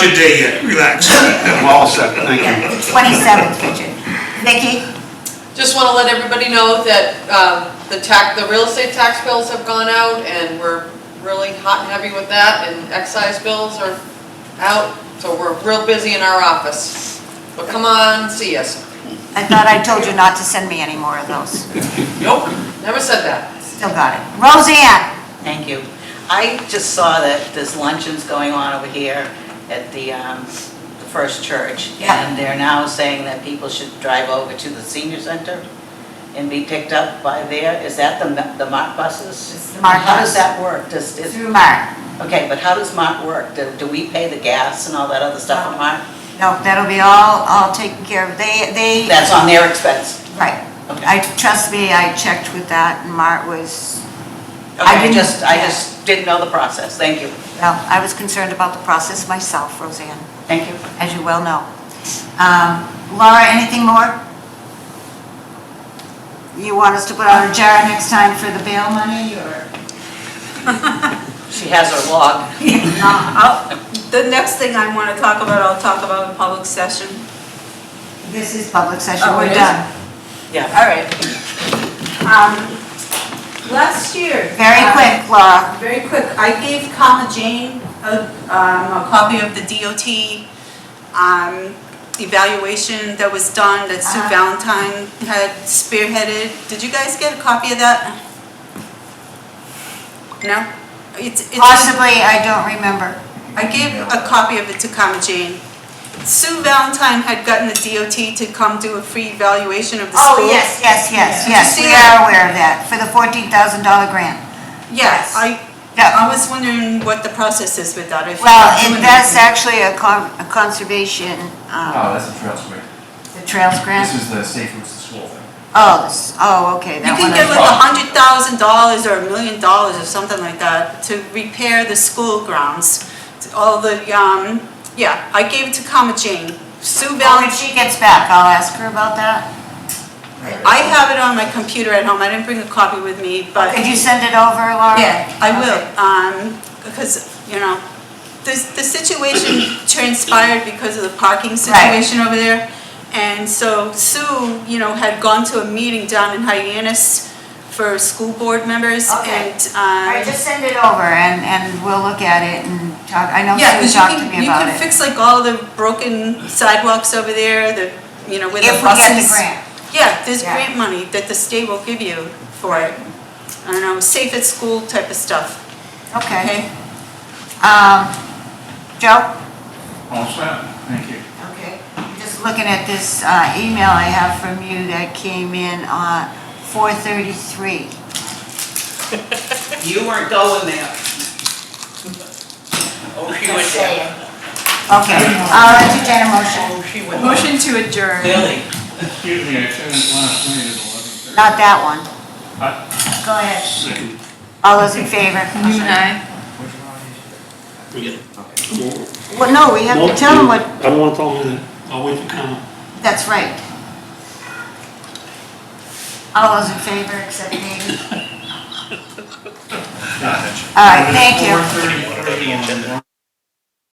Good day yet, relax. I'm all set, thank you. Twenty-seventh, Richard. Vicky, Just want to let everybody know that um, the tax, the real estate tax bills have gone out, and we're really hot and heavy with that, and excise bills are out, so we're real busy in our office. But come on, see us. I thought I told you not to send me any more of those. Nope, never said that. Still got it. Roseanne, Thank you. I just saw that there's luncheons going on over here at the um, the First Church. Yeah. And they're now saying that people should drive over to the senior center and be picked up by there. Is that the the MART buses? It's the MART How bus. does that work? Does, is- through Mark. okay, but how does MART work? Do do we pay the gas and all that other stuff for MART? No, that'll be all, all taken care of. They, they, That's on their expense. right. Okay. I, trust me, I checked with that and Mark was, I Okay, I didn't- just, I yeah. just didn't know the process. Thank you. well, I was concerned about the process myself, Roseanne, Thank you. as you well know. Um, Laura, anything more? You want us to put on a jar next time for the bail money or? She has her log. I'll- The next thing I want to talk about, I'll talk about in public session. This is public session, Oh, it we're is? done. Yeah. All right. Um, Last year. Very uh, quick, Laura. Very quick, I gave Comma Jane a, um, a copy of the DOT, um, evaluation that was done that Sue Uh-huh. Valentine had spearheaded. Did you guys get a copy of that? No? It's, it's. Possibly, I don't remember. I gave a copy of it to Comma Jane. Sue Valentine had gotten the DOT to come do a free evaluation of the school. Oh, Yes, yes, Did you yes, see we it? are aware of that, for the $14,000 grant. Yes, I, Yeah, I was wondering what the process is with that, if you're well, and doing that's anything. actually a con- a conservation, uh, Oh, that's a trail sweep. the trails This grant. is the safe routes to school thing. Oh, this, oh, okay, You that one. can get I- like a hundred thousand dollars or a million dollars or something like that to repair the school grounds. All the, um, yeah, I gave it to Comma Jane. Sue Well, Oh, When Valentine, she gets back, I'll ask her about that. I have it on my computer at home, I didn't bring a copy with me, but. Could you send it over, Laura? Yeah, I will, Okay. um, because, you know, the, the situation transpired because of the parking situation over there. And so Sue, you know, had gone to a meeting down in Hyannis for school board members Okay. and, All um. right, just send it over and, and we'll look at it and talk, I know Sue Yeah, because you talked to can, me you about can it. fix like all the broken sidewalks over there, the, you know, with the If we buses. get the grant. Yeah, there's Yeah. grant money that the state will give you for it. I don't know, safe at school type of stuff, Okay. okay? Um, Joe? All set, thank you. Okay, I'm just looking at this uh, email I have from you that came in uh, on 4:33. You weren't going there. Oh, she went there. Okay, I'll entertain a motion. Oh, she went. Motion to adjourn. Billy. Excuse me, I said it last night at eleven thirty. Not that one. Huh? Go ahead. All those in favor? Well, no, we have to tell them what, I don't want to tell them that. I'll wait for comment. that's right. All those in favor except Amy? All right, thank you. Four thirty, whatever the agenda.